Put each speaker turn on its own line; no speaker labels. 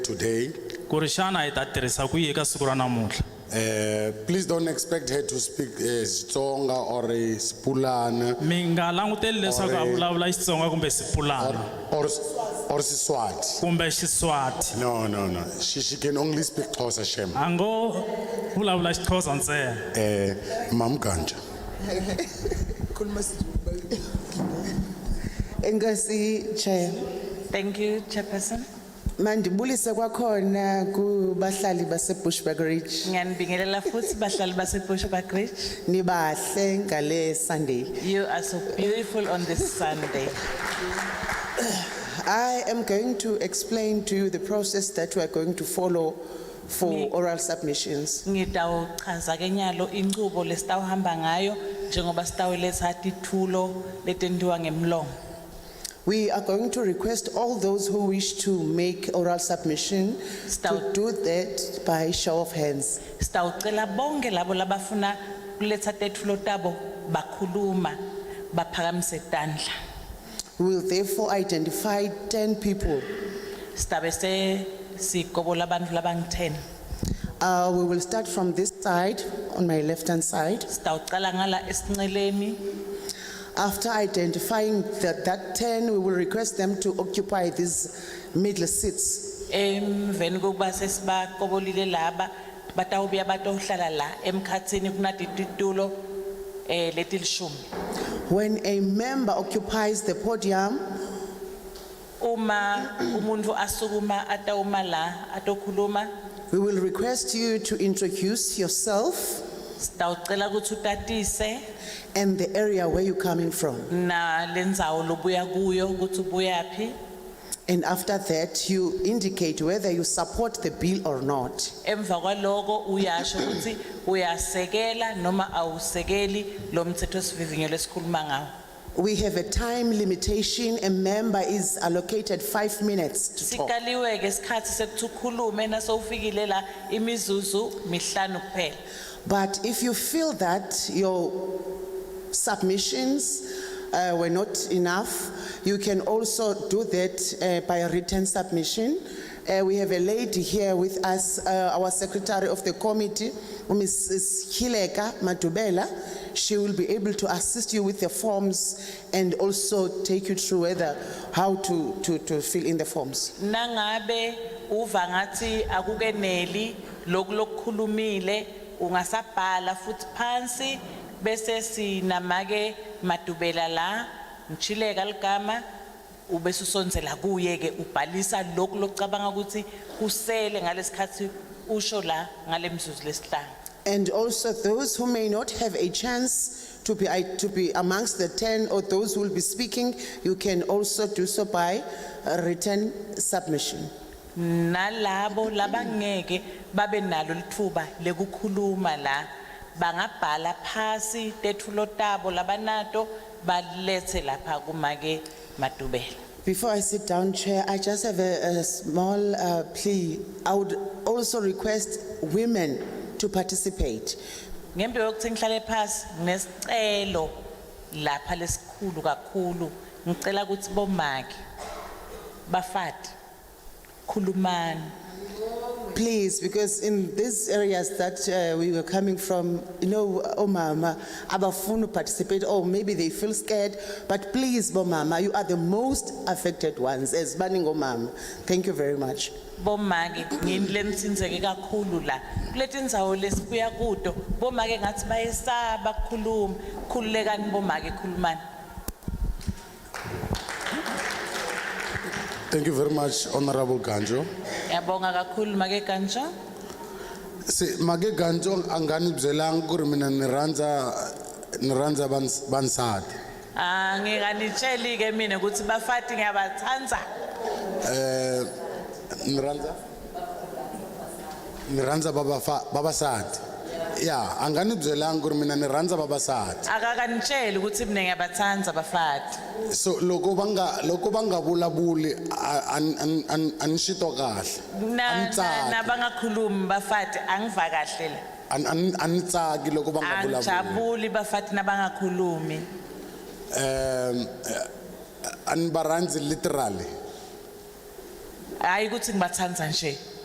today.
ku ri xana hi ta tirhisa ku yi eka siku ra namuntlha
Uh, please don't expect her to speak uh, Xitsonga or uh, Spulana
mi nga languteli leswaku a vulavula xitsonga kumbe xipulana
or, or Siswati.
kumbe xiswati
No, no, no. She, she can only speak Xhosa Shem.
a ngo vulavula xixhosa ntsena
Eh, Mam Ganja.
khuluma isiZulu balulekile. Enkosi Chair
Thank you, Chairperson.
mandibulise kwakhona kubahlali baseBushbuck Ridge
Ngiyanibingelela futhi bahlali baseBushbuck Ridge.
nibahle ngale Sunday
You are so beautiful on this Sunday.
I am going to explain to you the process that we are going to follow for oral submissions
Ngitawuchaza ke nyalo inchubo lesitawuhamba ngayo njengoba sitawuletha tithulo letendiwa ngemlomo.
we are going to request all those who wish to make oral submission to
Stout.
do that by show of hands
Sitawucela bonke labo labafuna kuletha tethulo tabo bakhuluma baphakamise tandla.
we will therefore identify 10 people
Sitabe se sikobola abantu labangu-10.
Uh, we will start from this side, on my left-hand side.
Sitawucala ngala esinceleni
After identifying that, that 10, we will request them to occupy these middle seats.
emveni kokuba sesibakobolile laba batawubuya batowuhlala la emkhathini kunati titulo eh letilishumi
When a member occupies the podium,
uma umuntu asukuma atawuma la atokhuluma
we will request you to introduce yourself
sitawucela ukuthi utatise
and the area where you're coming from.
na lendzawo lobuya kuyo ukuthi ubuyaphi
And after that, you indicate whether you support the bill or not.
emva kwaloko uyasho ukuthi uyasekela noma awusekeli lo mthetho lesikhuluma ngawo
We have a time limitation. A member is allocated five minutes to talk.
sikaliwe ke isikhathi sekuthi ukhulume nasowufikile la imizuzu mihlanu kuphela
But if you feel that your submissions uh, were not enough, you can also do that uh, by a written submission. Uh, We have a lady here with us, uh, our secretary of the committee, Mrs. Hileka Matubela. She will be able to assist you with the forms and also take you through whether, how to, to, to fill in the forms.
nangabe uva ngathi akukeneli loku lokukhulumile ungasabhala futhi phansi bese sinamake madubela la ngishileka ligama ubese usondzela kuye ke ubhalisa lokhu lokucabanga ukuthi kusele ngalesikhathi usho la ngale mizuzu lesihlanu
And also those who may not have a chance to be, to be amongst the 10 or those who will be speaking, you can also do so by a written submission.
nalabo labangeke babe nalo lithuba lekukhuluma la bangabhala phasi tethulo tabo labanato balethe lapha kumake madubela
Before I sit down, Chair, I just have a, a small uh, plea. I would also request women to participate.
ngembe yokuthi ngihlale phasi nginesicelo lapha lesikhulu kakhulu ngicela ukuthi bomake bafati khulumani
Please, because in these areas that uh, we were coming from, you know, oh mama, abafunu participate, or maybe they feel scared, but please, bo mama, you are the most affected ones, as banning oh mama. Thank you very much.
bomake ngini lenitsinzeke kakhulu la kuletindzawo lesibuya kuto bomake ngathi bayesaba kukhuluma khululekani bomake khulumani
Thank you very much, Honorable Ganjo.
ngiyabonga kakhulu make kanjo
Se mage Ganjo angani bzelang kuri mina niranza niranza bans bansad.
Ah, nginganitsheli-ke mina ukuthi bafati ngiyabathanza
Eh, niranza niranza baba fa baba sad. Yeah, angani bzelang kuri mina niranza baba sad.
akakanitsheli ukuthi mina ngiyabathanza bafati
So loko banga loko banga bula buli an an an anishito kahle.
Na- na-
Angitsaki.
nabangakhulumi bafati angiva kahle la
An an anitsaki loko banga bula buli.
angijabuli bafati nabangakhulumi
um, uh, and Baranzi literally.
hayi ukuthi ngibathanza nje